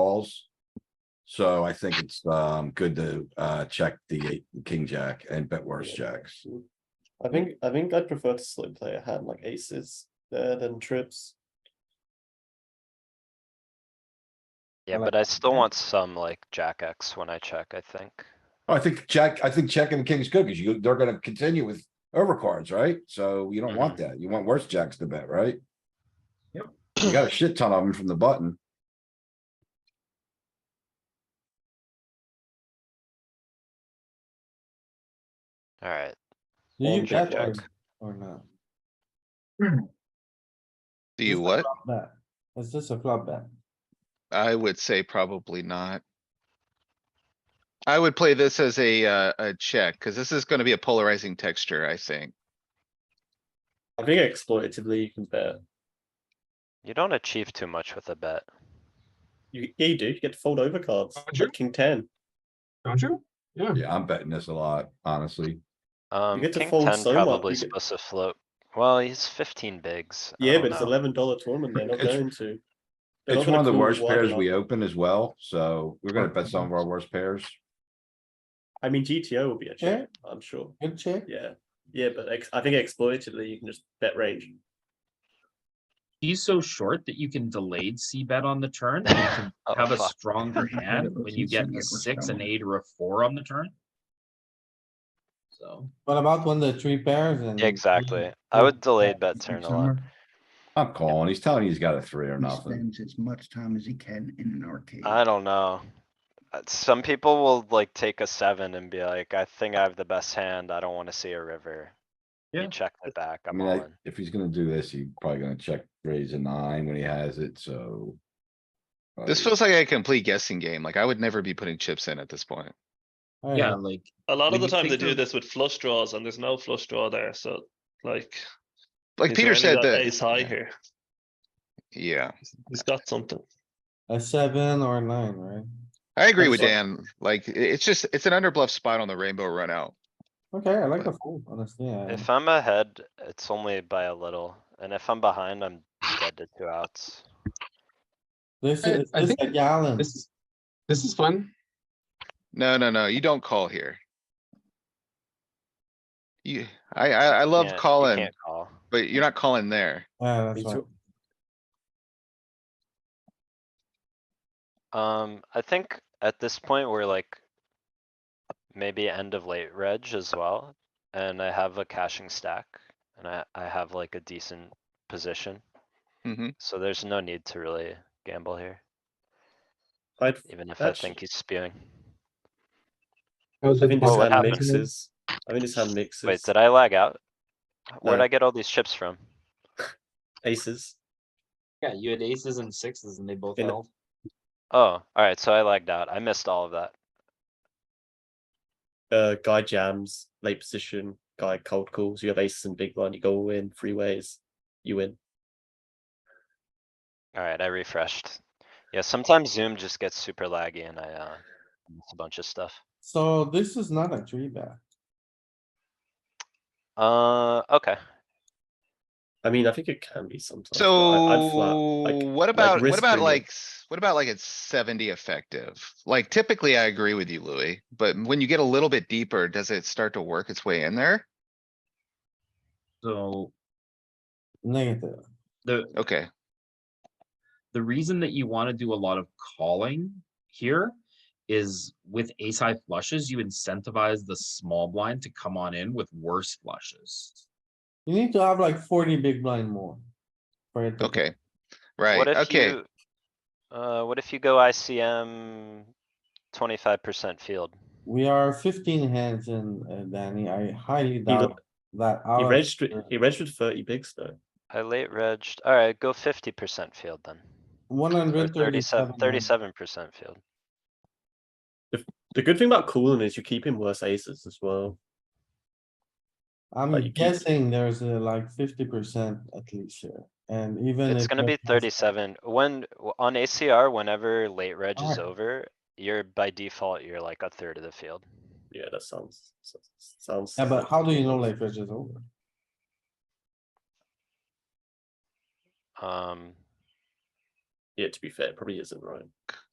calls. So I think it's, um, good to, uh, check the eight- king, jack and bet worse jacks. I think I think I'd prefer to slow play a hand like aces there than trips. Yeah, like but I still want some like jack X when I check, I think. Oh, I think jack, I think checking the king's good because you, they're gonna continue with overcards, right? So you don't want that. You want worse jacks to bet, right? Yep. You got a shit ton of them from the button. Alright, Do you Long check check, or, jack. or not? Do you what? Flop bet. Is this a flop bet? I would say probably not. I would play this as a, uh, a check, cuz this is gonna be a polarizing texture, I think. I think exploitatively you can bet. you don't achieve too much with a bet. You yeah, you do. You get to fold over cards. Roger. like king ten. Don't you? Yeah. Yeah, I'm betting this a lot, honestly. Um, get to king fold ten so much, probably you get- supposed to float. Well, he's fifteen bigs. I Yeah, don't but it's know. eleven dollar tournament. They're not Oh, It's- going to. They're not It's gonna one of the call worst wide pairs enough. we open as well, so we're gonna bet some of our worst pairs. I mean, GTO will be a check. I'm sure. Good check. Yeah, yeah, but ex- I think exploitatively you can just bet range. He's so short that you can delayed C bet on the turn. and you can Oh, Have a fuck. stronger hand but when you you get said a it was six, an down. eight, or a four on the turn. So, What about when the three pairs and? Yeah, Exactly. I would delayed bet turn a lot. I'm calling. He's telling you he's got a three or He nothing. spends as much time as he can in an arcade. I don't know. Uh, Some people will like take a seven and be like, I think I have the best hand. I don't wanna see a river. Yeah. You check the back, I I'm mean, all like, in. if he's gonna do this, he's probably gonna check raise a nine when he has it, so. uh, This feels like a complete guessing game, like I would never be putting chips in at this point. yeah, like, A lot When of the you time take they do the- this with flush draws and there's no flush draw there, so like. Like is there Peter any said Ace that, high yeah. here, yeah, he's got something. A seven or a nine, right? I agree with That's Dan, like, i- it's just, it's an underbluff spot on the rainbow run out. Okay, I like the fold, honestly. I- If I'm ahead, it's only by a little, and if I'm behind, I'm dead to two outs. This I- is, I this think a gallon. This is, this is fun. No, no, no, you don't call here. You, I, I, I love Can't- you calling, can't call. but you're not calling there. Yeah, that's Me right. too. Um, I think at this point, we're like. Maybe end of late reg as well, and I have a caching stack, and I, I have like a decent position, Mhm. so there's no need to really gamble here, I'd, even if I That's- think he's spewing. That was I a think ball. this what hand happened? mixes. I think this hand mixes. Wait, did I lag out? Where'd No. I get all these chips from? Aces. yeah, you had aces and sixes and they both In- held. Oh, alright, so I lagged out. I missed all of that. uh, guy jams, late position, guy cold calls, you have aces and big blind, you go all in, three ways, you win. Alright, I refreshed. Yeah, sometimes Zoom just gets super laggy and I, uh, miss a bunch of stuff. So this is not a three bet. Uh, okay, I mean, I think it can be sometimes. but I- I'd flat, So like, what about, what risk about premium. like, s- what about like it's seventy effective? Like typically I agree with you, Louis, but when you get a little bit deeper, does it start to work its way in there? So Negative. the, Okay, the reason that you want to do a lot of calling here is with ace high flushes, you incentivize the small blind to come on in with worse flushes. You need to have like forty big blind more. for Mm-hmm. it to- okay, what right, if okay, you, uh, what if you go ICM twenty-five percent field? We are fifteen hands in, uh, Danny. I highly lo- doubt that. He our- registered, he registered 30 bigs though. I late regged, alright, go fifty percent field then. One Or hundred thirty-seven, thirty-seven. thirty-seven percent field. The good thing about calling is you keep him worse aces as well. Like, I'm you keep- guessing there's a like fifty percent at least here, and even. It's if gonna be there's- thirty-seven. When, w- on ACR, whenever late reg is Alright. over, you're by default, you're like a third of the field. Yeah, that sounds, so- sounds. Yeah, but how do you know like is over? Um, Um, Yeah, to be fair, it probably isn't right.